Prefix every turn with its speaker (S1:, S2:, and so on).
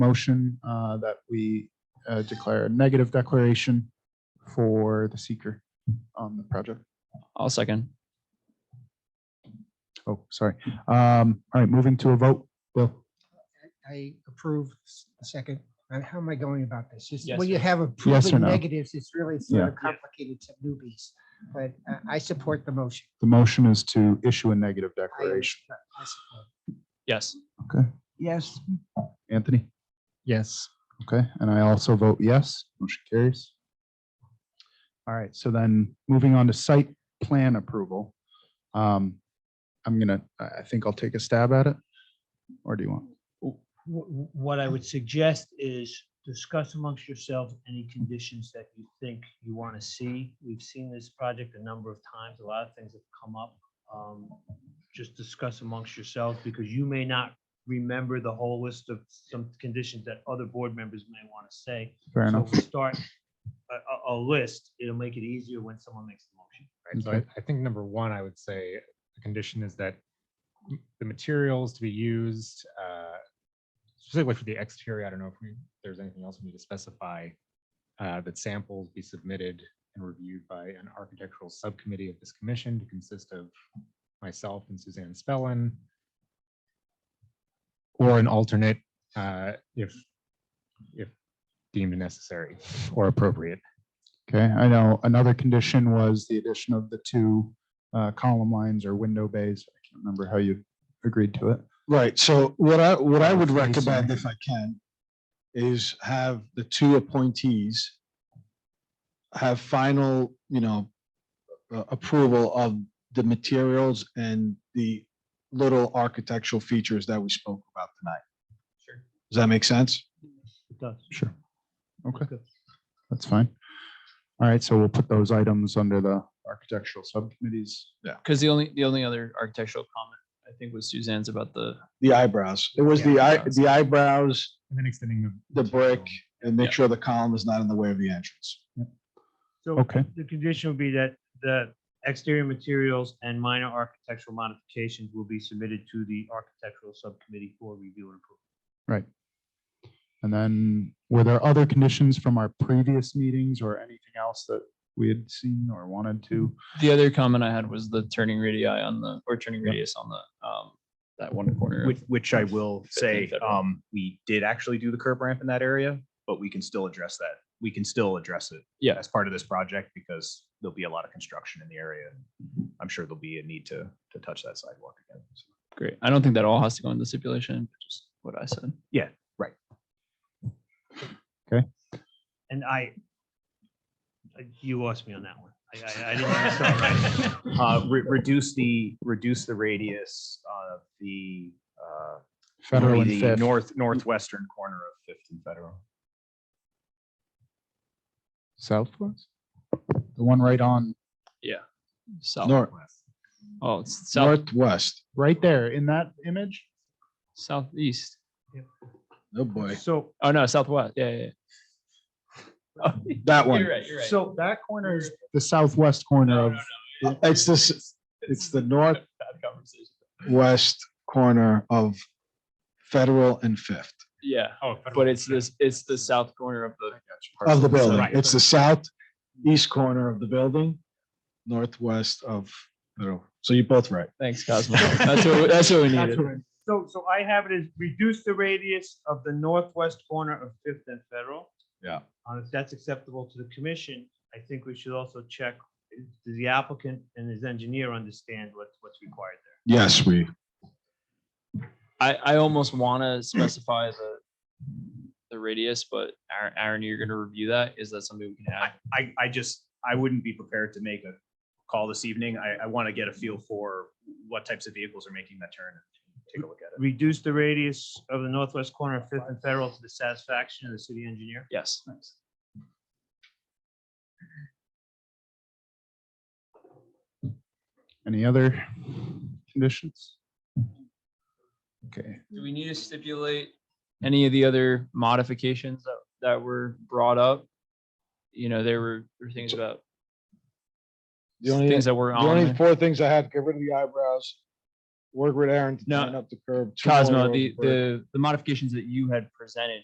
S1: motion uh, that we uh, declare a negative declaration for the seeker on the project.
S2: I'll second.
S1: Oh, sorry. Um, All right, moving to a vote. Bill?
S3: I approve s- second. Uh, How am I going about this? Just
S2: Yes
S3: when
S2: or
S3: you
S2: no.
S3: have approving
S1: no?
S3: negatives, it's really sort
S1: Yeah.
S3: of complicated to newbies. But uh, I support the motion.
S1: The motion is to issue a negative
S3: I am-
S1: declaration.
S3: I support.
S2: Yes.
S3: Yes.
S1: Anthony?
S3: Yes.
S1: Okay, and I also vote yes. Motion carries. All right, so then moving on to site plan approval. Um, I'm gonna, I I think I'll take a stab at it. Or do you want?
S4: Wh- wh- What I would suggest is discuss amongst yourselves any conditions that you think you want to see. We've seen this project a number of times. A lot of things have come up. Um, Just discuss amongst yourselves because you may not remember the whole list of some conditions that other board members may want to say.
S1: Fair
S4: So
S1: enough.
S4: if we start a, a, a list, it'll make it easier when someone makes the motion.
S5: Right, so
S1: Okay.
S5: I, I think number one, I would say the condition is that m- the materials to be used, uh, specifically for the exterior, I don't know if we, there's anything else we need to specify, uh, that samples be submitted and reviewed by an architectural subcommittee of this commission to consist of myself and Suzanne Spellin, or an alternate, uh, if, if deemed necessary or appropriate.
S1: Okay, I know another condition was the addition of the two uh, column lines or window bays. I can't remember how you agreed to it.
S6: Right, so what I, what I would
S1: Facing.
S6: recommend if I can is have the two appointees have final, you know, uh, approval of the materials and the little architectural features that we spoke about tonight.
S4: Sure.
S6: Does that make sense?
S4: It does.
S1: Sure. Okay, that's fine. All right, so we'll put those items under the architectural subcommittees.
S2: Because the only, the only other architectural comment, I think, was Suzanne's about the,
S6: The eyebrows. It was the eye, the eyebrows,
S5: And then extending the.
S6: the brick, and
S2: Yeah.
S6: make sure the column is not in the way of the entrance.
S4: So
S1: Okay.
S4: the condition would be that the exterior materials and minor architectural modifications will be submitted to the architectural subcommittee for review and approval.
S1: Right. And then were there other conditions from our previous meetings or anything else that we had seen or wanted to?
S2: the other comment I had was the turning radii on the, or turning
S1: Yeah.
S2: radius on the, um, that one corner. of-
S7: Which, which I will
S2: Fifth and
S7: say,
S2: Federal.
S7: um, we did actually do the curb ramp in that area, but we can still address that. We can still address it
S2: Yeah.
S7: as part of this project because there'll be a lot of construction in the area. and I'm sure there'll be a need to, to touch that sidewalk again. So,
S2: Great. I don't think that all has to go into stipulation, but just what I said.
S4: And I, I- you lost me on that one. I- I, I didn't understand.
S7: Uh, re- reduce the, reduce the radius of the, uh,
S1: Federal and
S7: the
S1: fifth.
S7: North, northwestern corner of Fifth and Federal.
S1: Southwest? The one right on,
S2: South,
S6: North,
S2: oh, it's south,
S6: northwest.
S1: right there in that image?
S2: southeast.
S6: Oh, boy.
S4: So,
S2: Oh, no, southwest. Yeah, yeah. yeah.
S6: That
S2: Oh,
S6: one.
S2: You're right, you're right.
S4: so that corner is,
S1: The southwest corner
S2: No,
S1: of,
S2: no,
S6: It's this, it's the
S2: Bad conversation.
S6: northwest corner of Federal and Fifth
S2: Yeah,
S5: Oh,
S2: but it's this, it's the south corner of the.
S6: of
S2: parcel.
S6: the building.
S2: Right.
S6: It's the southeast corner of the building, northwest of Federal. So you're both right.
S2: Thanks, Cosmo. That's what, we- that's what we needed.
S4: so, so I have it as reduce the radius of the northwest corner of Fifth and Federal.
S6: Yeah.
S4: Uh, if that's acceptable to the commission, I think we should also check, uh, does the applicant and his engineer understand what's, what's required there?
S6: Yes, we,
S2: I, I almost want to specify the, the radius, but Aaron, Aaron, you're gonna review that. Is that something we can add?
S7: I, I just, I wouldn't be prepared to make a call this evening. I, I want to get a feel for what types of vehicles are making that turn. and Take a look at it.
S4: reduce the radius of the northwest corner of Fifth and Federal to the satisfaction of the city engineer?
S2: Yes.
S1: any other conditions? Okay,
S2: Do we need to stipulate any of the other modifications that, that were brought up? You know, there were, there were things about
S6: the only,
S2: things
S6: the
S2: that were on.
S6: only
S2: there.
S6: four things I had, get rid of the eyebrows, work with Aaron to
S2: No,
S6: tighten up the curb. two more
S2: Cosmo,
S6: rows
S2: the,
S6: of brick.
S2: the, the modifications that you had presented